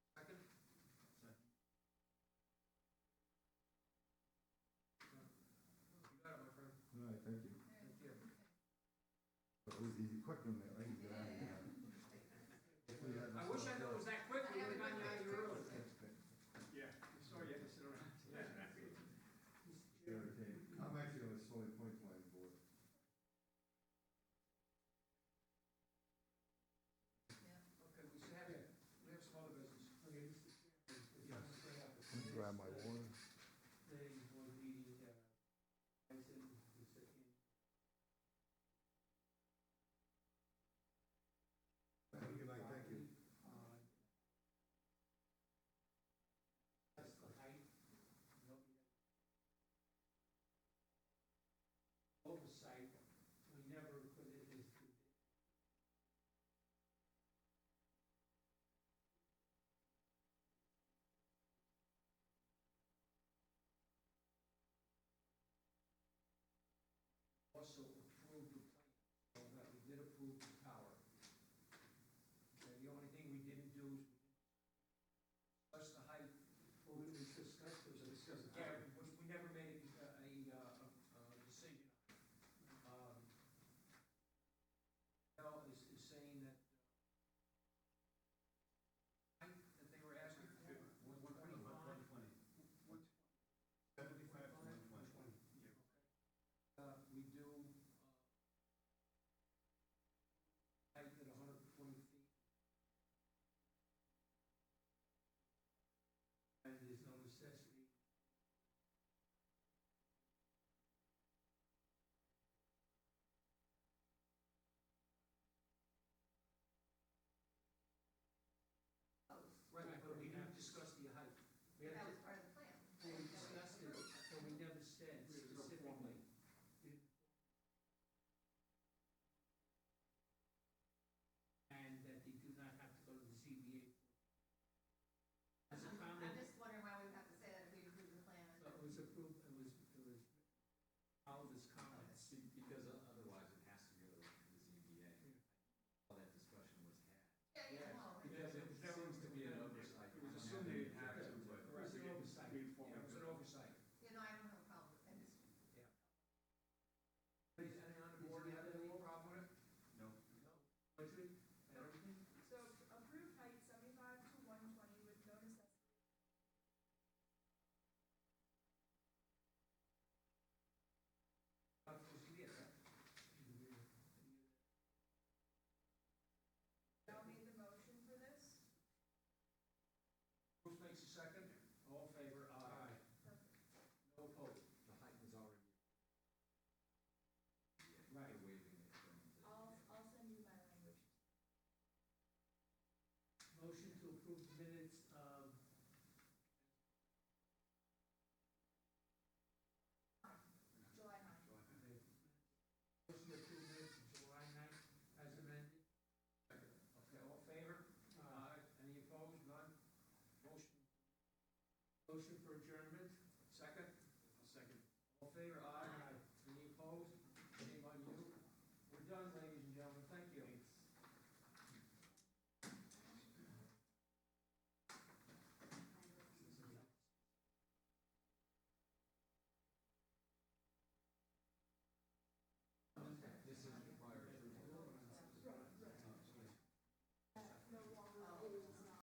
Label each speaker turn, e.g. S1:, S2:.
S1: Thank you. It was easy, quick in there, I can get out of here. If we had
S2: I
S1: this
S2: wish I
S1: stuff
S2: knew it was that quick, we would've gotten out of here early.
S3: Yeah, sorry you had to sit around.
S1: irritated. I'm actually on the solid point line board.
S2: Okay, we should have, we have some other business.
S4: Okay, Mr. Chairman, if you want to bring up
S1: Can you grab my
S4: the
S1: water?
S4: planning board meeting, uh, Tyson, the second.
S1: Thank you, like, thank you.
S4: on That's the height. you know, we had Oversight, we never put it as. to-
S2: Also approved the plan, so that we did approve the power. Okay, the only thing we didn't do is discuss the height.
S4: Well, we discussed
S2: So
S4: this.
S2: discuss the height, which we never made a, a, uh, a decision. on. Um, Now is, is saying that uh, height that they were asking for, one twenty-five.
S3: Seventy-five to one twenty.
S2: Uh, we do, uh, height at hundred and twenty feet.
S4: And there's no necessity.
S2: Right, but we didn't discuss the height.
S4: We have
S5: That
S4: to-
S5: was part of the plan.
S4: Well, we discussed it, but we never said specifically. And that they do not have to go to the ZBA. As a
S5: I'm I'm
S4: comment,
S5: just wondering why we would have to say that if we approved the plan.
S4: so it was approved, it was, it was, all of his comments.
S6: See, because o- otherwise it has to go to the ZBA. All that discussion was had.
S5: Yeah, yeah, no. right.
S6: Because it seems to be an oversight.
S3: It was assumed they didn't have to, but.
S2: It was an oversight.
S3: We
S2: Yeah, it
S3: informed
S2: was an
S3: them.
S2: oversight.
S5: You know, I don't have a problem with that. It's-
S2: Anybody on the board have any problem with it?
S3: No.
S2: No. Budget, everything?
S7: So approved height seventy-five to one twenty with no necessity.
S2: Uh, was it, yeah,
S7: Now made the motion for this.
S2: Bruce makes a second, all in favor, aye.
S7: Perfect.
S2: No opposed.
S6: The height was already.
S2: Right.
S6: They're waiving it from the.
S7: I'll, I'll send you my language.
S4: Motion to approve the minutes of. Motion to
S7: July ninth.
S4: approve minutes of July ninth as amended.
S2: Okay, all in favor? Aye. Any opposed? None? Motion,
S4: Motion for adjournment.
S2: second? Second. All in favor, aye.